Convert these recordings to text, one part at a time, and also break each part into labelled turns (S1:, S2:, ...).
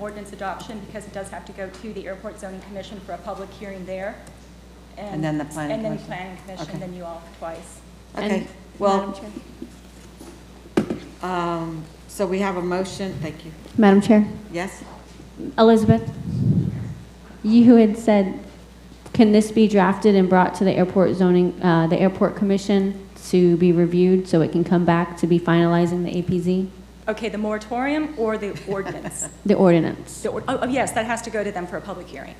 S1: ordinance adoption because it does have to go to the Airport Zoning Commission for a public hearing there.
S2: And then the planning
S1: And then
S2: commission.
S1: Planning Commission,
S2: Okay.
S1: then you all twice.
S2: Okay,
S3: And- Madam
S2: well,
S3: Chair?
S2: um, so we have a motion, thank you.
S3: Madam Chair,
S2: Yes?
S3: Elizabeth, you who had said, can this be drafted and brought to the airport zoning, uh, the airport commission to be reviewed so it can come back to be finalizing the APZ,
S1: Okay, the moratorium or the ordinance?
S3: the ordinance?
S1: The or- Oh, oh, yes, that has to go to them for a public hearing.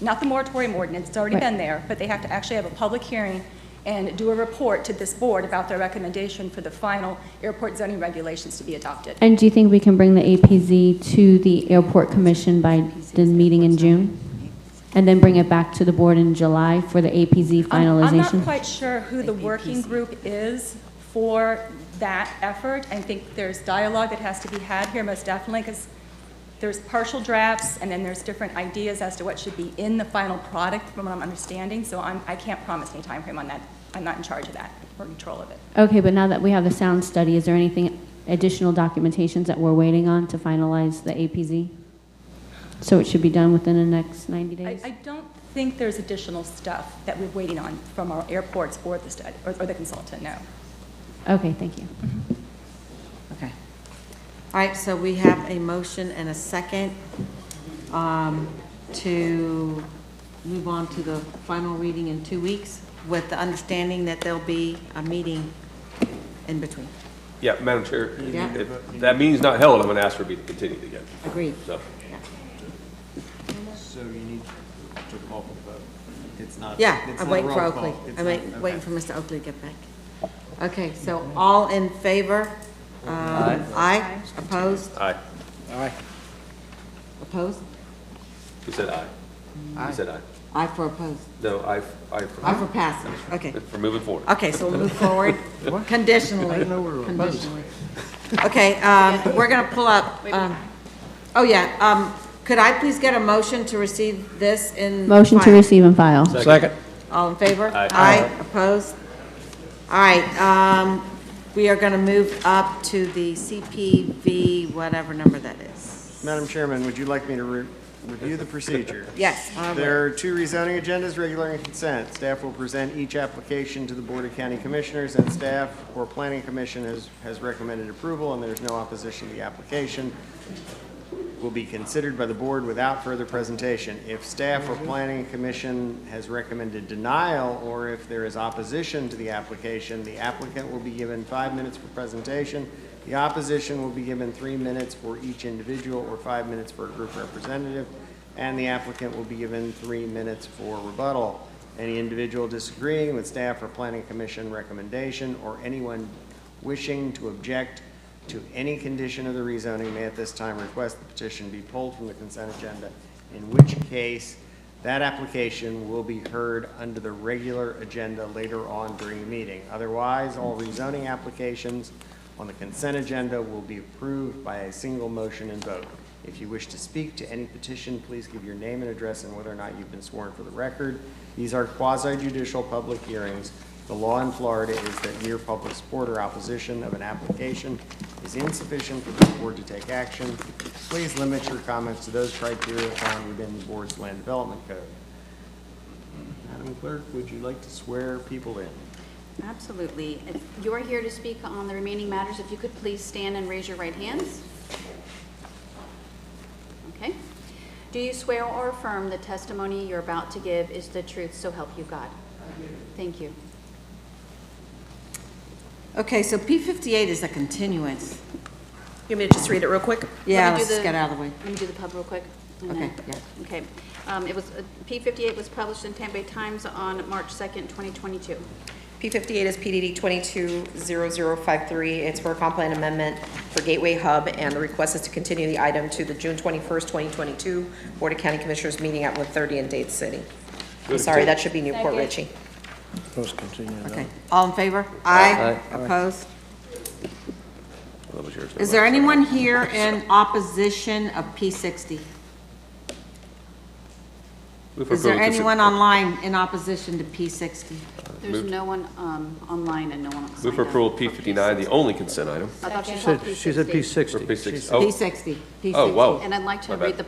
S1: Not the moratorium ordinance, it's already
S3: Right.
S1: been there, but they have to actually have a public hearing and do a report to this board about their recommendation for the final airport zoning regulations to be adopted.
S3: And do you think we can bring the APZ to the airport commission by the meeting in June? And then bring it back to the board in July for the APZ
S1: I'm- I'm not
S3: finalization?
S1: quite sure who the working group is for that effort. I think there's dialogue that has to be had here, most definitely, because there's partial drafts, and then there's different ideas as to what should be in the final product, from what I'm understanding, so I'm, I can't promise any timeframe on that. I'm not in charge of that or control of it.
S3: Okay, but now that we have the sound study, is there anything, additional documentations that we're waiting on to finalize the APZ? So it should be done within the next 90
S1: I,
S3: days?
S1: I don't think there's additional stuff that we're waiting on from our airports or the study, or or the consultant, no.
S3: Okay, thank you.
S2: Okay. All right, so we have a motion and a second um, to move on to the final reading in two weeks with the understanding that there'll be a meeting in between.
S4: Yeah, Madam Chair,
S2: Yeah.
S4: if that meeting's not held, I'm going to ask for it to be continued again,
S2: Agreed.
S4: so.
S5: So you need to call for the vote. It's not.
S2: Yeah,
S5: it's
S2: I'm
S5: not a
S2: waiting for
S5: roll call.
S2: Oakley.
S5: It's
S2: I'm
S5: not-
S2: wait- waiting
S5: okay.
S2: for Mr. Oakley to get back. Okay, so all in favor? Uh, Aye. Opposed?
S4: Aye.
S2: Opposed?
S4: He said aye. He said aye.
S2: Aye for opposed.
S4: No, aye, aye
S2: Aye
S4: for,
S2: for passing, okay.
S4: for moving forward.
S2: Okay, so we'll move forward conditionally. Conditionally. Okay, um, we're going to pull up, um, oh yeah, um, could I please get a motion to receive this in?
S3: Motion to
S2: file?
S3: receive and file.
S4: Second.
S2: All in favor?
S4: Aye.
S2: opposed? All right, um, we are going to move up to the CPV, whatever number that is.
S5: Madam Chairman, would you like me to re- review the procedure?
S2: Yes. I will.
S5: There are two rezoning agendas, regular and consent. Staff will present each application to the Board of County Commissioners, and staff or Planning Commission has, has recommended approval, and there's no opposition to the application. Will be considered by the board without further presentation. If staff or Planning Commission has recommended denial, or if there is opposition to the application, the applicant will be given five minutes for presentation. The opposition will be given three minutes for each individual, or five minutes for a group representative and the applicant will be given three minutes for rebuttal. Any individual disagreeing with staff or planning commission recommendation, or anyone wishing to object to any condition of the rezoning may at this time request the petition be pulled from the consent agenda, in which case that application will be heard under the regular agenda later on during the meeting. Otherwise, all rezoning applications on the consent agenda will be approved by a single motion and vote. If you wish to speak to any petition, please give your name and address and whether or not you've been sworn for the record. These are quasi-judicial public hearings. The law in Florida is that mere public support or opposition of an application is insufficient for the board to take action. Please limit your comments to those criteria found within the board's land development code. Madam Clerk, would you like to swear people in?
S6: Absolutely. If you're here to speak on the remaining matters, if you could please stand and raise your right hands. Okay. Do you swear or affirm the testimony you're about to give is the truth, so help you God? Thank you.
S2: Okay, so P fifty-eight is a continuance.
S7: You want me to just read it real quick?
S2: Yeah,
S6: Let me
S2: let's
S6: do
S2: just get out of the way.
S6: Let me do the pub real quick. and then-
S2: Okay, yeah.
S6: Okay. Um, It was, P fifty-eight was published in Tampa Bay Times on March second, twenty twenty-two.
S7: P58 is PDD 220053. It's for a comp plan amendment for Gateway Hub, and the request is to continue the item to the June 21st, 2022 Board of County Commissioners meeting at 1:30 in Dade City. I'm sorry, that should be Newport Ritchie.
S2: Okay, all in favor? Aye. Opposed?
S4: That was yours.
S2: Is there anyone here in opposition of P sixty?
S4: Move for
S2: Is there
S4: approval to-
S2: anyone online in opposition to P sixty?
S6: There's no one um, online and no one signed up.
S4: Move for approval of P59, the only consent item.
S6: I thought you
S8: Said-
S6: said
S8: She said
S6: P60.
S8: P60.
S4: Or P6,
S2: P
S4: oh,
S2: sixty?
S4: oh, whoa.
S6: And I'd like to
S4: My bad.
S6: read the